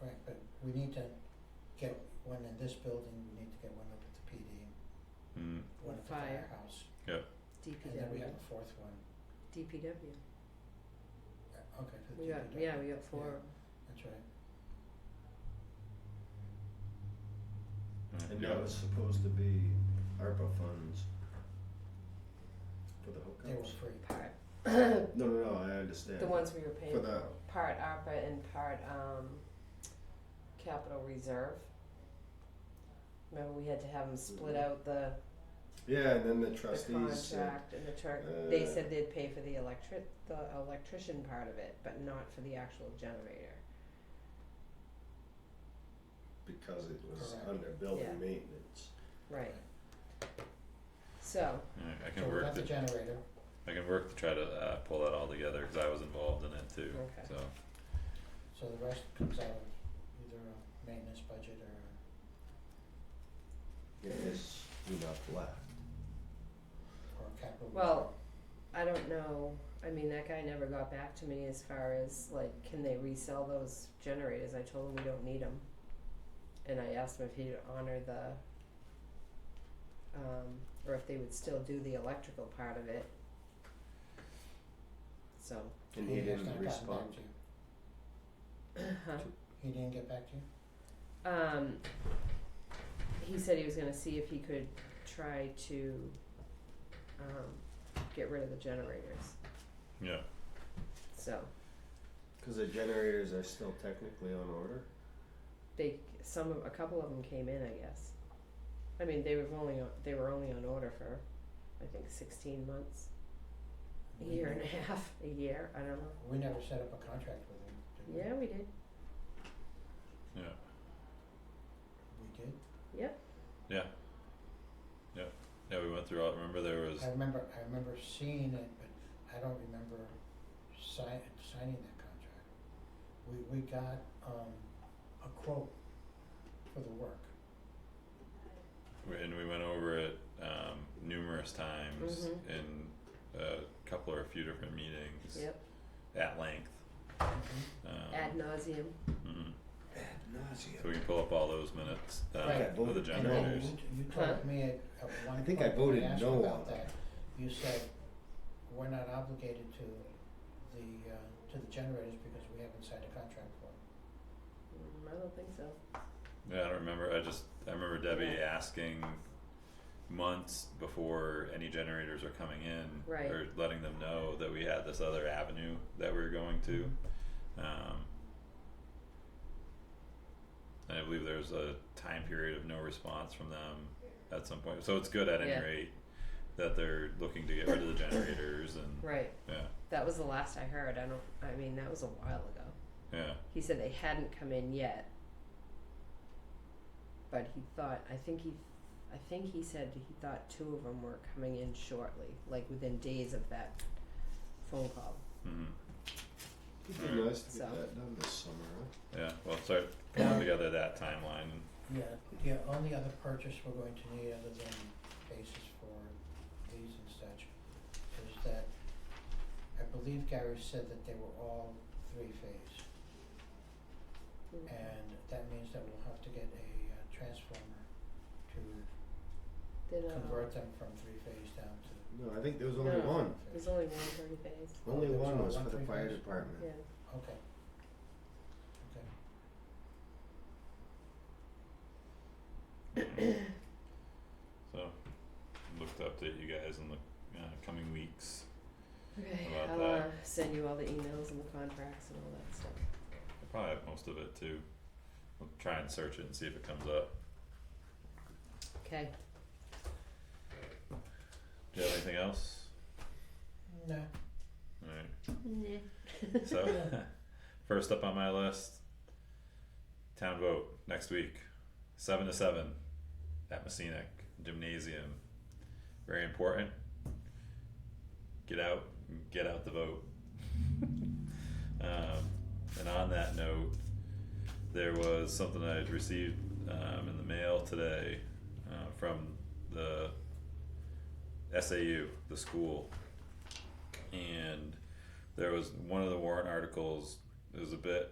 Right, but we need to get one in this building, we need to get one up at the PD, Mm, one at the Fire. firehouse, and then we DPW, have a fourth one, DPW, Uh, okay, for the we got, DPW. yeah, we got four, Yeah. That's right. mm, And yeah. that was supposed to be ARPA funds for the They were hookups. free. part, No, no, no, I understand. the ones we were For paying, the, part ARPA and part, um, capital reserve. Remember, we had to have them split out the, yeah, and then the the Mm-hmm. trustees said, contract and the truck, they uh, said they'd pay for the electric, the electrician part of it, but not for the actual generator. because it was Correct. under Yeah. building maintenance. Right, so, Alright, I So can we work got the, the generator, I can work to try to uh pull that all together, cause I was involved in it too, Okay. so. so the rest comes out of either a maintenance budget or Yes, enough left. or a capital. well, I don't know, I mean, that guy never got back to me as far as like, can they resell those generators, I told him we don't need them. And I asked him if he'd honor the, um, or if they would still do the electrical part of it. So, And he has didn't not gotten back respond. to you. Uh-huh. He didn't get back to you? um, he said he was gonna see if he could try to, um, get rid of the generators, Yeah, so Cause the generators are still technically on order. they, some of, a couple of them came in, I guess. I mean, they were only, on- they were only on order for, I think sixteen months, a We year and never- a half, a year, I don't know, We never set up a contract with him, did we? yeah, we did, yeah, We did? yeah, we went through all, remember there was, I remember, I remember seeing it, but I don't remember sign, signing that contract. We, we got, um, a quote for the work. we- and we went over it um numerous times Mhm. in a couple or a few different meetings yep, at length, ad um, nauseum, mm, Ad nauseum. so we can pull up all those minutes, Right. uh, Okay, for the voted no. And then generators. you, you Huh? told me at, at one I point, think I when voted I asked you no about on that, you said, we're not obligated to the, uh, to the generators because we haven't signed a contract for it. Mm, I don't think so, Yeah, I don't remember, I just, I remember Debbie asking months before any generators are coming in. Right. Or letting them know that we had this other avenue that we were going to, Mm-hmm. um. And I believe there's a time period of no response from them at some point, so it's good at Yeah. any rate that they're looking to get rid of the generators and, right, yeah, that was the last I heard, I don't, I mean, that was a while ago. yeah, He said they hadn't come in yet. But he thought, I think he, I think he said he thought two of them were coming in shortly, like within days of that phone call. mhm, It'd be nice to get So. that done this summer, huh? yeah, well, start pulling together that timeline and Yeah, the only other purchase we're going to need other than basis for these and such is that I believe Gary said that they were all three phase. Mm. And that means that we'll have to get a uh, transformer to Then, uh, convert them from three phase down to No, I think there was only No. one. there's phase. only one thirty days, Only There's one only was one for the three fire phase? department. yeah. Okay. Okay. So, look to update you guys in the uh, coming weeks. Okay, How about I'll uh that? send you all the emails and the contracts and all that stuff. I probably have most of it too. We'll try and search it and see if it comes up. Okay, Do you have anything else? No, Alright, so first up on my list town vote next week, 7 to 7 at Messinic Gymnasium. Very important. Get out, get out the vote. um, and on that note, there was something I had received um, in the mail today uh, from the SAU, the school. And there was one of the warrant articles, it was a bit